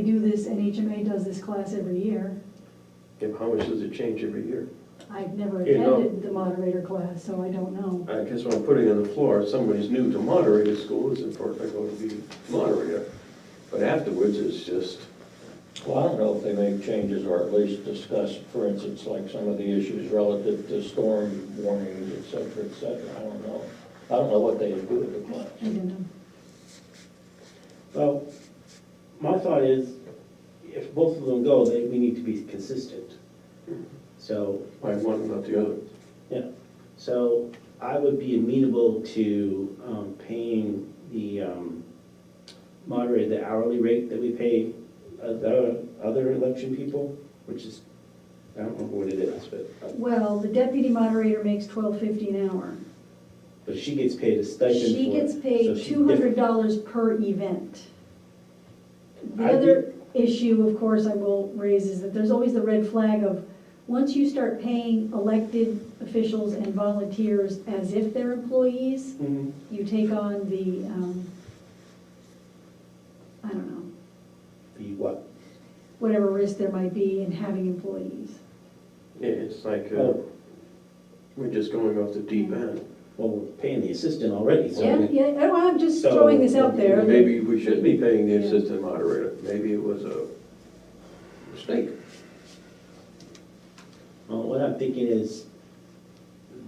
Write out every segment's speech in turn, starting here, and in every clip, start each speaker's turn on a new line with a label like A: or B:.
A: They do this, and HMA does this class every year.
B: And how much does it change every year?
A: I've never
B: You know.
A: attended the moderator class, so I don't know.
B: I guess what I'm putting on the floor, if somebody's new to moderator school, it's important I go to be moderator. But afterwards, it's just,
C: Well, I don't know if they make changes or at least discuss, for instance, like some of the issues relative to storm warnings, et cetera, et cetera. I don't know. I don't know what they do with the class.
A: I don't know.
D: Well, my thought is, if both of them go, they, we need to be consistent. So,
B: why one, not the other?
D: yeah, so I would be amenable to um, paying the um, moderator the hourly rate that we pay other, other election people, which is, I don't remember what it is, but,
A: Well, the deputy moderator makes twelve fifty an hour.
D: but she gets paid a stipend for it.
A: She gets
D: so
A: paid
D: she's
A: two hundred
D: different.
A: dollars per event. The
D: I
A: other issue, of course, I will raise is that there's always the red flag of, once you start paying elected officials and volunteers as if they're employees,
D: Mhm.
A: you take on the, um, I don't know,
D: The what?
A: whatever risk there might be in having employees.
B: Yeah, it's like,
A: Oh.
B: uh,
D: Well-
B: we're just going off the deep end.
D: Well, we're paying the assistant already, so.
A: Yeah, yeah, I don't- I'm just
D: So-
A: throwing this out there.
B: Maybe we should be paying the
A: Yeah.
B: assistant moderator, maybe it was a mistake.
D: Well, Uh, what I'm thinking is,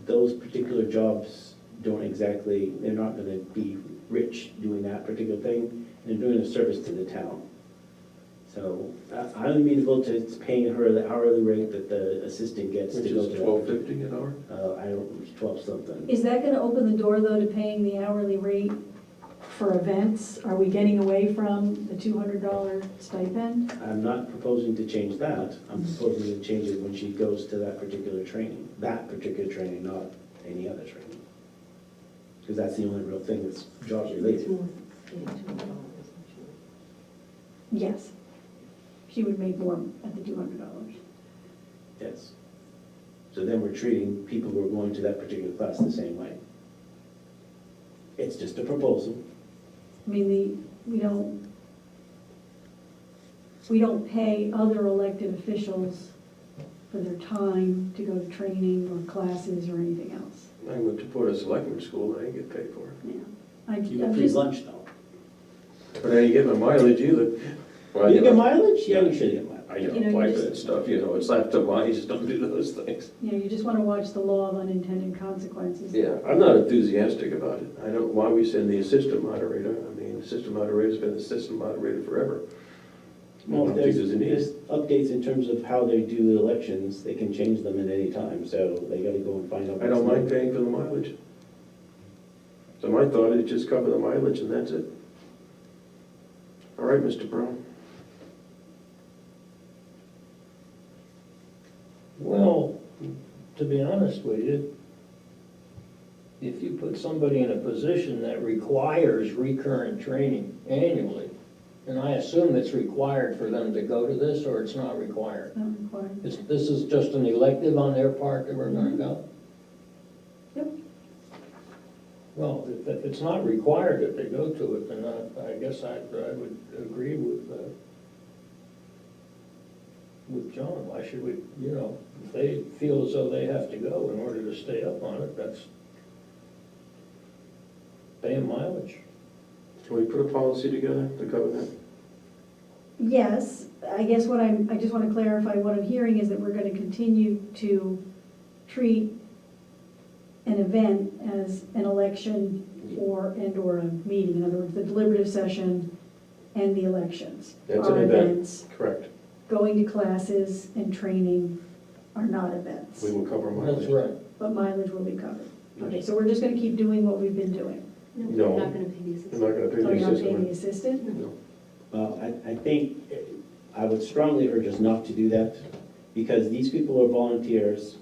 D: those particular jobs don't exactly, they're not gonna be rich doing that particular thing, and they're doing a service to the town. So, I- I'm amenable to paying her the hourly rate that the assistant gets to
B: Which
D: go
B: is
D: to.
B: twelve fifty an hour?
D: Uh, I don't, it's twelve something.
A: Is that gonna open the door, though, to paying the hourly rate for events? Are we getting away from the two hundred dollar stipend?
D: I'm not proposing to change that, I'm proposing to change it when she goes to that particular training, that particular training, not any other training. Because that's the only real thing that's job related.
A: Yes. She would make more at the two hundred dollars.
D: Yes. So then we're treating people who are going to that particular class the same way. It's just a proposal.
A: I mean, the, we don't, we don't pay other elected officials for their time to go to training or classes or anything else.
B: I went to Porter Selectman School, I didn't get paid for
A: Yeah.
B: it.
A: I,
D: You get
A: I'm
D: free
A: just,
D: lunch though.
B: But I didn't get my mileage either. Well,
D: You get
B: know,
D: mileage? Yeah, you should get
B: I
D: mileage.
A: You know,
B: don't
A: you
B: like
A: just-
B: that stuff, you know, it's not to why you just don't do those things.
A: you know, you just wanna watch the law of unintended consequences.
B: Yeah, I'm not enthusiastic about it. I don't, why we send the assistant moderator, I mean, the assistant moderator's been the assistant moderator forever. I
D: Well,
B: don't think
D: there's,
B: there's a need.
D: there's updates in terms of how they do elections. They can change them at any time, so they gotta go and find out.
B: I don't mind paying for the mileage. So my thought is just cover the mileage and that's it. All right, Mr. Brown.
C: Well, to be honest with you, if you put somebody in a position that requires recurrent training annually, and I assume it's required for them to go to this, or it's not required?
A: Not required.
C: Is- This is just an elective on their part that we're gonna go?
A: Yep.
C: Well, if, if it's not required that they go to it, then I, I guess I, I would agree with, uh, with John, why should we, you know, if they feel as though they have to go in order to stay up on it, that's pay 'em mileage.
B: Can we put a policy together to cover that?
A: Yes, I guess what I'm, I just want to clarify, what I'm hearing is that we're going to continue to treat an event as an election or, and/or a meeting. In other words, the deliberative session and the elections
B: That's an
A: are
B: event.
A: events.
B: Correct.
A: Going to classes and training are not events,
B: We will cover
C: That's
B: mileage.
C: right.
A: but mileage will be covered. Okay, so we're just going to keep doing what we've been doing.
E: No,
B: No.
E: we're not gonna pay the
B: I'm
E: assistant.
B: not gonna pay
A: So
B: the
A: you're not paying the
B: assistant.
A: assistant?
B: No.
D: Well, I, I think, eh, I would strongly urge us not to do that, because these people are volunteers,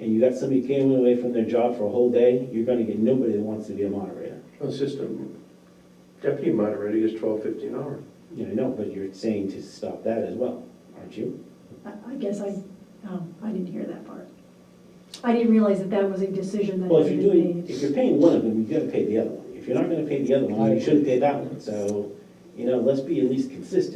D: and you got somebody came away from their job for a whole day, you're gonna get nobody that wants to be a moderator.
B: Assistant deputy moderator is twelve fifty an hour.
D: You know, I know, but you're saying to stop that as well, aren't you?
A: I I guess I, oh, I didn't hear that part. I didn't realize that that was a decision that
D: Well,
A: had
D: if you're
A: been
D: doing,
A: made.
D: if you're paying one of them, you gotta pay the other one. If you're not gonna pay the other one, then you shouldn't pay that one. So, you know, let's be at least